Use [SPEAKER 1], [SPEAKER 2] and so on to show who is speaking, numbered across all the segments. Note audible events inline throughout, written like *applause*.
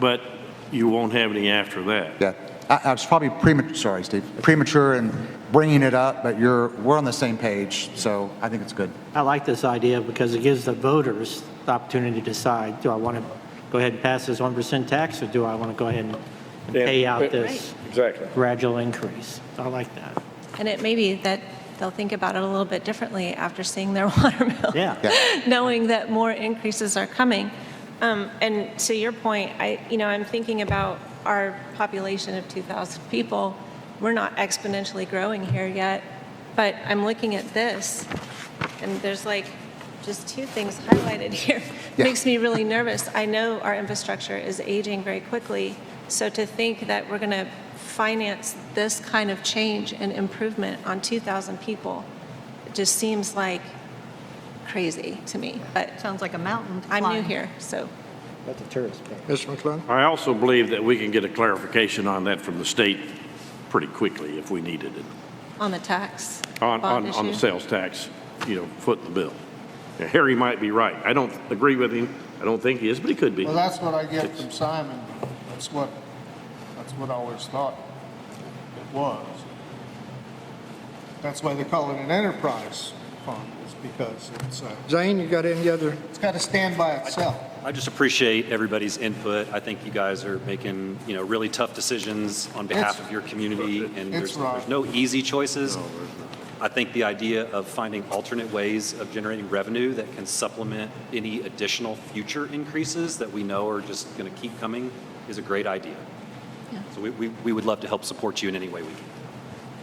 [SPEAKER 1] but you won't have any after that.
[SPEAKER 2] Yeah, I, I was probably premature, sorry, Steve, premature in bringing it up, but you're, we're on the same page, so I think it's good.
[SPEAKER 3] I like this idea because it gives the voters the opportunity to decide, do I want to go ahead and pass this 1% tax, or do I want to go ahead and and pay out this
[SPEAKER 4] Exactly.
[SPEAKER 3] gradual increase? I like that.
[SPEAKER 5] And it may be that they'll think about it a little bit differently after seeing their *laughs* water bill.
[SPEAKER 3] Yeah.
[SPEAKER 5] *laughs* Knowing that more increases are coming. Um, And to your point, I, you know, I'm thinking about our population of 2,000 people. We're not exponentially growing here yet, but I'm looking at this, and there's like just two things highlighted here.
[SPEAKER 2] Yeah.
[SPEAKER 5] Makes me really nervous. I know our infrastructure is aging very quickly, so to think that we're going to finance this kind of change and improvement on 2,000 people just seems like crazy to me. But
[SPEAKER 6] Sounds like a mountain to
[SPEAKER 5] I'm new
[SPEAKER 6] climb.
[SPEAKER 5] here, so.
[SPEAKER 3] That's a tourist thing.
[SPEAKER 7] Mr. McClung?
[SPEAKER 1] I also believe that we can get a clarification on that from the state pretty quickly if we needed it,
[SPEAKER 5] On the tax
[SPEAKER 1] on,
[SPEAKER 5] bond
[SPEAKER 1] on, on the
[SPEAKER 5] issue.
[SPEAKER 1] sales tax, you know, foot in the bill. Now, Harry might be right. I don't agree with him. I don't think he is, but he could be.
[SPEAKER 7] Well, that's what I get from Simon. That's what, that's what I always thought it was. That's why they call it an enterprise fund, is because it's, uh,
[SPEAKER 4] Zane, you got any other?
[SPEAKER 7] it's got to stand by itself.
[SPEAKER 8] I just appreciate everybody's input. I think you guys are making, you know, really tough decisions on behalf
[SPEAKER 7] It's-
[SPEAKER 8] of your community, and
[SPEAKER 7] it's
[SPEAKER 8] there's
[SPEAKER 7] wrong.
[SPEAKER 8] there's no easy choices. I think the idea of finding alternate ways of generating revenue that can supplement any additional future increases that we know are just going to keep coming is a great idea. So we- we we would love to help support you in any way we can.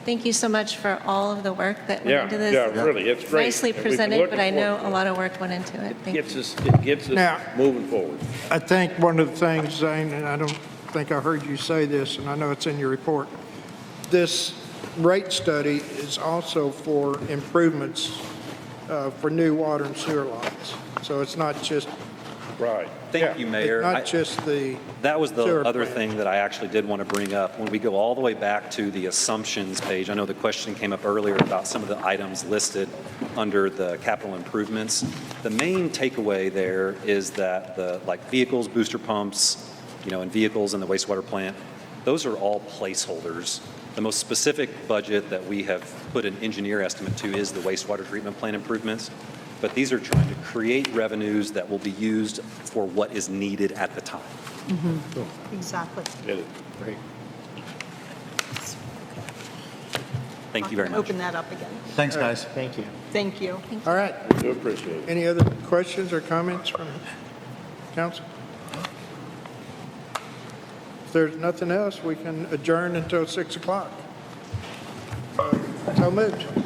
[SPEAKER 5] Thank you so much for all of the work that went
[SPEAKER 9] Yeah,
[SPEAKER 5] into this.
[SPEAKER 9] yeah, really, it's great.
[SPEAKER 5] Nicely
[SPEAKER 9] And we've been
[SPEAKER 5] presented,
[SPEAKER 9] looking
[SPEAKER 5] but I know
[SPEAKER 9] forward to
[SPEAKER 5] a
[SPEAKER 9] it.
[SPEAKER 5] lot of work went into it. Thank you.
[SPEAKER 9] Gets us, it gets
[SPEAKER 4] Now-
[SPEAKER 9] us moving forward.
[SPEAKER 4] I think one of the things, Zane, and I don't think I heard you say this, and I know it's in your report, this rate study is also for improvements uh, for new water and sewer lines. So it's not just,
[SPEAKER 9] Right.
[SPEAKER 8] Thank you, Mayor.
[SPEAKER 4] it's
[SPEAKER 8] I-
[SPEAKER 4] not just the,
[SPEAKER 8] That was the
[SPEAKER 4] Sure.
[SPEAKER 8] other thing that I actually did want to bring up. When we go all the way back to the assumptions page, I know the question came up earlier about some of the items listed under the capital improvements. The main takeaway there is that the, like vehicles, booster pumps, you know, and vehicles in the wastewater plant, those are all placeholders. The most specific budget that we have put an engineer estimate to is the wastewater treatment plant improvements. But these are trying to create revenues that will be used for what is needed at the time.
[SPEAKER 6] Exactly.
[SPEAKER 9] Get it.
[SPEAKER 8] Thank you very much.
[SPEAKER 6] Open that up again.
[SPEAKER 2] Thanks, guys.
[SPEAKER 3] Thank you.
[SPEAKER 6] Thank you.
[SPEAKER 4] all right.
[SPEAKER 9] We do appreciate it.
[SPEAKER 4] Any other questions or comments from council? If there's nothing else, we can adjourn until 6 o'clock. So moved.